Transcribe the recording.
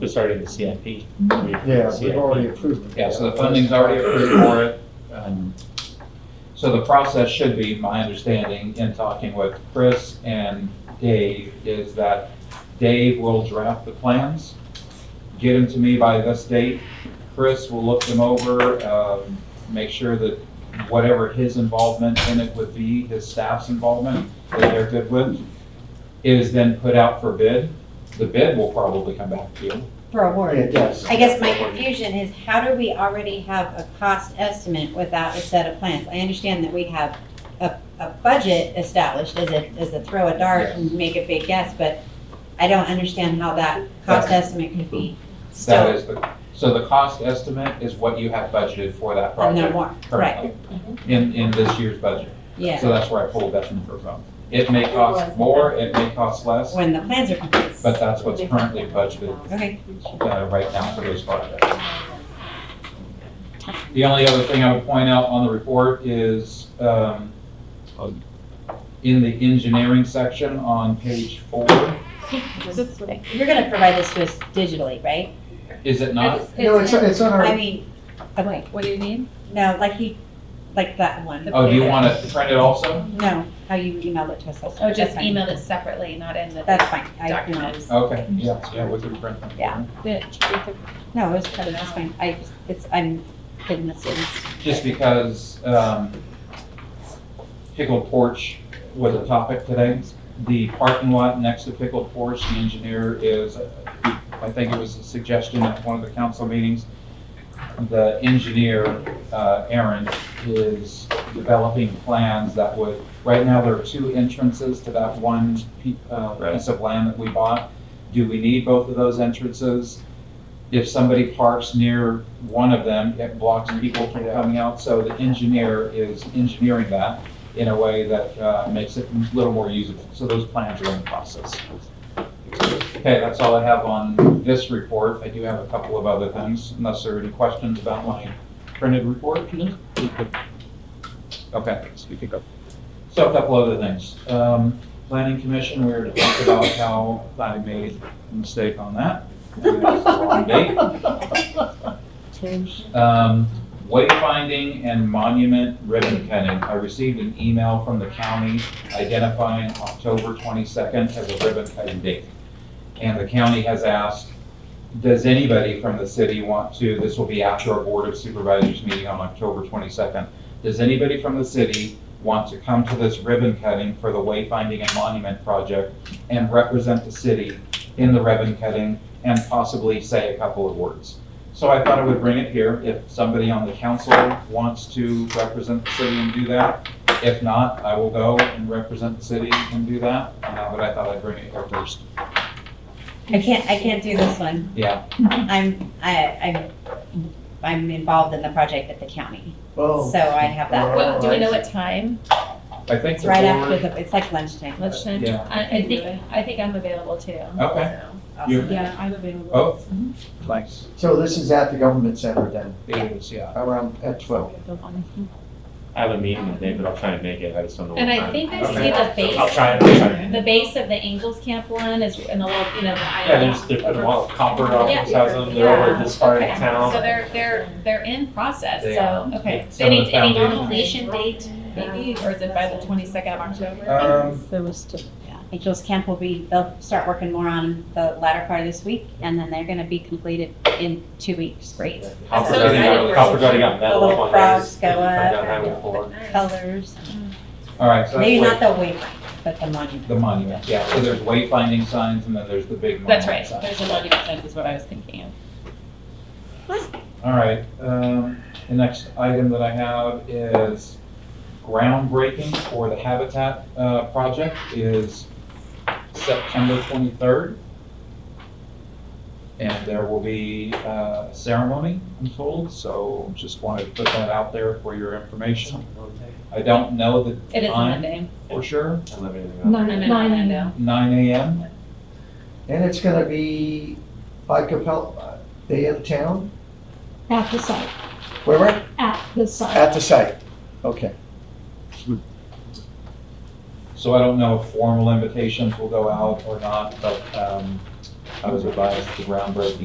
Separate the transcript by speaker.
Speaker 1: It's already in the CIP.
Speaker 2: Yeah, we've already approved it.
Speaker 3: Yeah, so the funding's already approved for it. Um, So the process should be, my understanding, in talking with Chris and Dave, is that Dave will draft the plans, get them to me by this date. Chris will look them over, um, make sure that whatever his involvement in it would be, his staff's involvement, that they're good with, is then put out for bid. The bid will probably come back to you.
Speaker 4: for award.
Speaker 2: It does.
Speaker 4: I guess my confusion is how do we already have a cost estimate without a set of plans? I understand that we have a, a budget established as a, as a throw a dart and make a big guess, but I don't understand how that cost estimate could be
Speaker 3: That
Speaker 4: still
Speaker 3: is the, so the cost estimate is what you have budgeted for that
Speaker 4: and no
Speaker 3: project
Speaker 4: more, right,
Speaker 3: currently, in, in this year's budget. So
Speaker 4: yeah,
Speaker 3: that's where I pulled that number from. It may cost more, it may cost less,
Speaker 4: when the plans are complete.
Speaker 3: but that's what's currently budgeted,
Speaker 4: Okay,
Speaker 3: uh, right now for those projects. The only other thing I would point out on the report is, um, in the engineering section on page four,
Speaker 4: you're gonna provide this to us digitally, right?
Speaker 3: is it not?
Speaker 2: No, it's, it's on
Speaker 4: I
Speaker 2: our,
Speaker 4: mean, oh wait,
Speaker 5: What do you mean?
Speaker 4: no, like he, like that one,
Speaker 3: Oh, do you want to print it also?
Speaker 4: no, how you emailed it to us. that's-
Speaker 5: Oh, just
Speaker 4: that's fine.
Speaker 5: emailed it separately, not in the.
Speaker 4: That's fine, I
Speaker 5: Document.
Speaker 4: emailed it.
Speaker 3: Okay, yeah, yeah, we can print them.
Speaker 4: Yeah. No, it was part of this one. I, just- it's, I'm hidden this in.
Speaker 3: just because um, pickled porch was a topic today. The parking lot next to pickled porch, the engineer is, I think it was a suggestion at one of the council meetings. The engineer, uh, Aaron, is developing plans that would, right now, there are two entrances to that one pe- uh, piece of land that we bought. Do we need both of those entrances? if somebody parks near one of them, it blocks people from coming out. So the engineer is engineering that in a way that uh, makes it a little more usable. So those plans are in the process. Okay, that's all I have on this report. I do have a couple of other things, unless there are any questions about my printed report. Okay. You can go. So a couple other things. Um, Planning Commission, we were talking about how I made a mistake on that. Wrong date. Um, wayfinding and monument ribbon cutting. I received an email from the county identifying October twenty-second as a ribbon cutting date. And the county has asked, does anybody from the city want to, this will be after our Board of Supervisors meeting on October twenty-second. Does anybody from the city want to come to this ribbon cutting for the wayfinding and monument project and represent the city in the ribbon cutting and possibly say a couple of words? So I thought I would bring it here, if somebody on the council wants to represent the city and do that. If not, I will go and represent the city and do that, Uh, but I thought I'd bring it here first.
Speaker 4: I can't, I can't do this one.
Speaker 3: Yeah,
Speaker 4: I'm, I, I'm, I'm involved in the project at the county, so
Speaker 2: oh,
Speaker 4: I have that.
Speaker 5: What, do we know what time?
Speaker 3: I think
Speaker 4: It's
Speaker 3: the
Speaker 4: right after
Speaker 3: board,
Speaker 4: the, it's like lunchtime.
Speaker 5: Let's, I,
Speaker 3: yeah,
Speaker 5: I think, I think I'm available too.
Speaker 3: okay.
Speaker 4: Um,
Speaker 3: You-
Speaker 5: Yeah, I'm available.
Speaker 3: Oh. Thanks.
Speaker 2: So this is at the government center then,
Speaker 3: It is, yeah.
Speaker 2: around at twelve.
Speaker 1: I have a meeting that day, but I'll try and make it. I just don't know.
Speaker 5: And
Speaker 1: what
Speaker 5: I
Speaker 1: time.
Speaker 5: think I
Speaker 3: Okay.
Speaker 5: see the
Speaker 1: I'll
Speaker 5: base,
Speaker 1: try. I'll try.
Speaker 5: the base of the Angels Camp one is in the little, you know, the
Speaker 1: Yeah,
Speaker 5: island.
Speaker 1: there's, they're putting all copper on these houses. They're over this far in
Speaker 5: So
Speaker 1: town.
Speaker 5: they're, they're, they're in process,
Speaker 3: They
Speaker 5: so, okay.
Speaker 1: Some of
Speaker 5: Any,
Speaker 1: the
Speaker 5: any
Speaker 1: foundation-
Speaker 5: completion date maybe, or is it by the twenty-second of October?
Speaker 3: Um,
Speaker 4: Angels Camp will be, they'll start working more on the latter part of this week, and then they're gonna be completed in two weeks. Great.
Speaker 1: Copper
Speaker 5: so
Speaker 1: gutting
Speaker 5: excited.
Speaker 1: on, copper gutting on metal.
Speaker 4: The little
Speaker 1: on those.
Speaker 4: frogs go
Speaker 1: Find out
Speaker 4: up.
Speaker 1: how it will.
Speaker 4: Colors,
Speaker 3: all right, so
Speaker 4: maybe not
Speaker 3: that's
Speaker 4: the waypoint, but the monument.
Speaker 3: wait- the monument, yeah. So there's wayfinding signs and then there's the big monument
Speaker 5: That's right,
Speaker 3: sign.
Speaker 5: there's a monument sign is what I was thinking of.
Speaker 3: All right, um, the next item that I have is groundbreaking for the Habitat, uh, project is September twenty-third. And there will be, uh, a ceremony, I'm told, so just wanted to put that out there for your information. I don't know the
Speaker 5: It is a
Speaker 3: time
Speaker 5: Monday.
Speaker 3: for sure,
Speaker 1: I love anything
Speaker 5: No,
Speaker 1: else.
Speaker 5: no, no, no, no, no.
Speaker 3: nine AM,
Speaker 2: And it's gonna be by Capella, day in town,
Speaker 6: At the site,
Speaker 2: where, where?
Speaker 6: at the site.
Speaker 2: At the site, okay.
Speaker 3: so I don't know if formal invitations will go out or not, but, um, I was advised the groundbreaking